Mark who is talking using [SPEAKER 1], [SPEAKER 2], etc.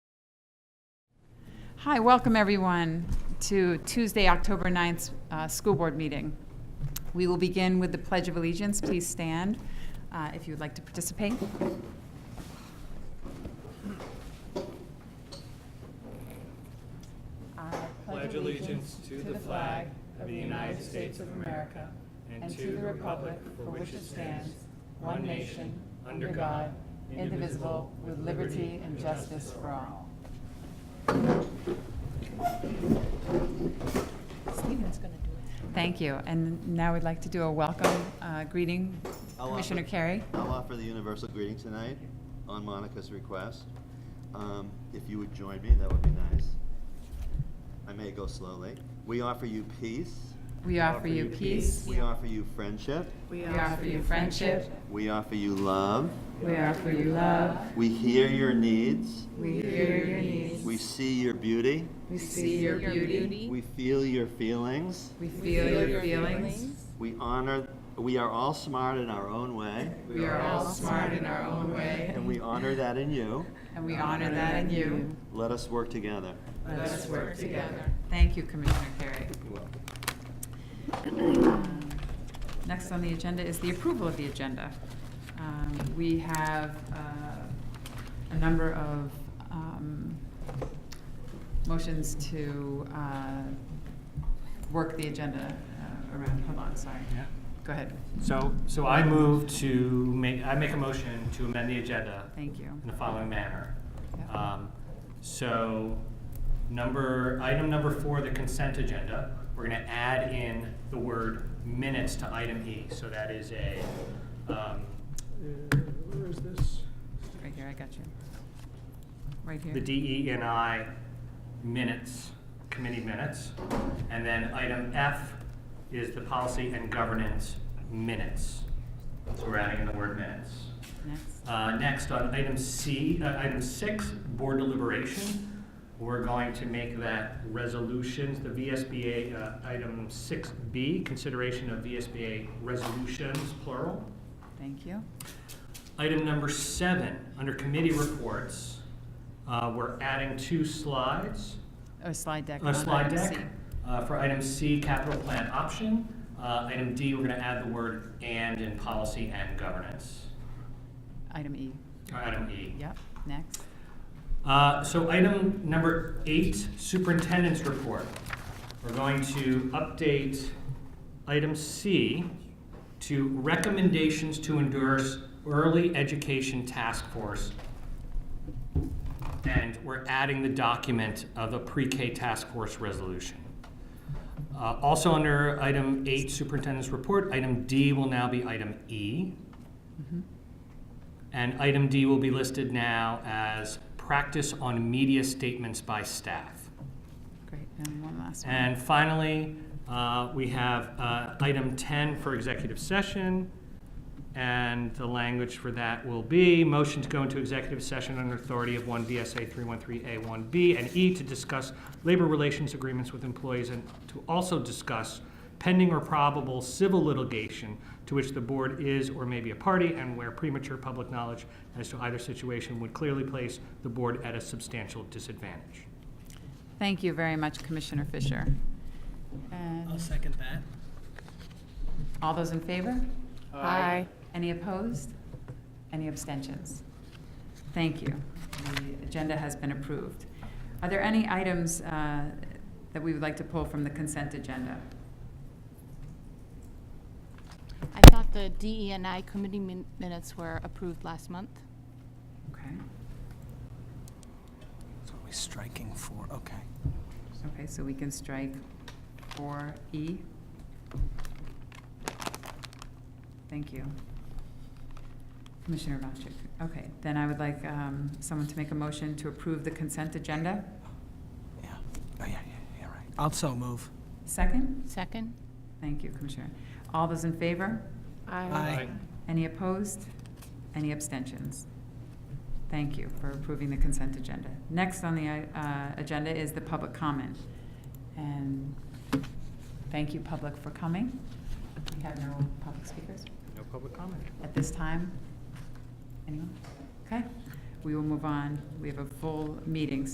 [SPEAKER 1] Hi, welcome everyone to Tuesday, October 9th, uh, School Board Meeting. We will begin with the Pledge of Allegiance. Please stand uh, if you would like to participate.
[SPEAKER 2] pledge allegiance to the flag of the United States of America and to the republic for which it stands, one nation, under God, indivisible, with liberty and justice for all.
[SPEAKER 3] Steven's gonna do it.
[SPEAKER 1] Thank you. And now we'd like to do a welcome uh, greeting.
[SPEAKER 4] I'll offer-
[SPEAKER 1] Commissioner Carey?
[SPEAKER 4] I'll offer the universal greeting tonight on Monica's request. Um, If you would join me, that would be nice. I may go slowly. We offer you peace.
[SPEAKER 1] We offer you peace.
[SPEAKER 4] We offer you friendship.
[SPEAKER 1] We offer you friendship.
[SPEAKER 4] We offer you love.
[SPEAKER 1] We offer you love.
[SPEAKER 4] We hear your needs.
[SPEAKER 1] We hear your needs.
[SPEAKER 4] We see your beauty.
[SPEAKER 1] We see your beauty.
[SPEAKER 4] We feel your feelings.
[SPEAKER 1] We feel your feelings.
[SPEAKER 4] We honor, we are all smart in our own way,
[SPEAKER 1] We are all smart in our own way,
[SPEAKER 4] and we honor that in you.
[SPEAKER 1] and we honor that in you.
[SPEAKER 4] Let us work together.
[SPEAKER 1] Let us work together. Thank you, Commissioner Carey.
[SPEAKER 4] You're welcome.
[SPEAKER 1] Um, Next on the agenda is the approval of the agenda. Um, We have uh, a number of um, motions to uh, work the agenda uh, around. Hold on, sorry.
[SPEAKER 2] Yeah.
[SPEAKER 1] Go ahead.
[SPEAKER 2] So, so I move to make, I make a motion to amend the agenda
[SPEAKER 1] Thank you.
[SPEAKER 2] in the following manner.
[SPEAKER 1] Yep.
[SPEAKER 2] Um, So, number, item number four, the consent agenda, we're gonna add in the word minutes to item E. So that is a, um, uh, where is this?
[SPEAKER 1] Right here, I got you. Right here.
[SPEAKER 2] The DE and I minutes, committee minutes. And then item F is the policy and governance minutes. So we're adding in the word minutes.
[SPEAKER 1] Next.
[SPEAKER 2] Uh, Next, on item C, uh, item six, board deliberation, we're going to make that resolutions, the VSBA, uh, item six B, consideration of VSBA resolutions, plural.
[SPEAKER 1] Thank you.
[SPEAKER 2] Item number seven, under committee reports, uh, we're adding two slides,
[SPEAKER 1] Oh, slide deck.
[SPEAKER 2] a
[SPEAKER 1] on
[SPEAKER 2] slide
[SPEAKER 1] item
[SPEAKER 2] deck.
[SPEAKER 1] C.
[SPEAKER 2] Uh, For item C, capital plan option. Uh, Item D, we're going to add the word and in policy and governance.
[SPEAKER 1] Item E.
[SPEAKER 2] Or Item E.
[SPEAKER 1] Yep, next.
[SPEAKER 2] Uh, So item number eight, superintendent's report. We're going to update item C to recommendations to endorse early education task force. And we're adding the document of the pre-K task force resolution. Uh, Also under item eight, superintendent's report, item D will now be item E. And item D will be listed now as practice on media statements by staff.
[SPEAKER 1] Great, and one last one.
[SPEAKER 2] And finally, uh, we have uh, item 10 for executive session. And the language for that will be motion to go into executive session under authority of 1 VSA 313A1B and E to discuss labor relations agreements with employees and to also discuss pending or probable civil litigation to which the board is or may be a party and where premature public knowledge as to either situation would clearly place the board at a substantial disadvantage.
[SPEAKER 1] Thank you very much, Commissioner Fisher.
[SPEAKER 5] I'll
[SPEAKER 1] And
[SPEAKER 5] second that.
[SPEAKER 1] all those in favor?
[SPEAKER 3] Aye.
[SPEAKER 1] Any opposed? Any abstentions? Thank you. The agenda has been approved. Are there any items uh, that we would like to pull from the consent agenda?
[SPEAKER 6] I thought the DE and I committee min- minutes were approved last month.
[SPEAKER 1] Okay,
[SPEAKER 5] So are we striking for, okay.
[SPEAKER 1] okay, so we can strike E. 4E. Thank you. Commissioner Vachick. Okay, then I would like um, someone to make a motion to approve the consent agenda.
[SPEAKER 5] Yeah. Oh, yeah, yeah, yeah, right. I'll so move.
[SPEAKER 1] Second?
[SPEAKER 6] Second?
[SPEAKER 1] Thank you, Commissioner. All those in favor?
[SPEAKER 5] Aye.
[SPEAKER 1] Any opposed? Any abstentions? Thank you for approving the consent agenda. Next on the uh, agenda is the public comment. And thank you, public, for coming. We have no public speakers
[SPEAKER 2] No public comment.
[SPEAKER 1] at this time. Anyone? Okay, we will move on. We have a full meeting,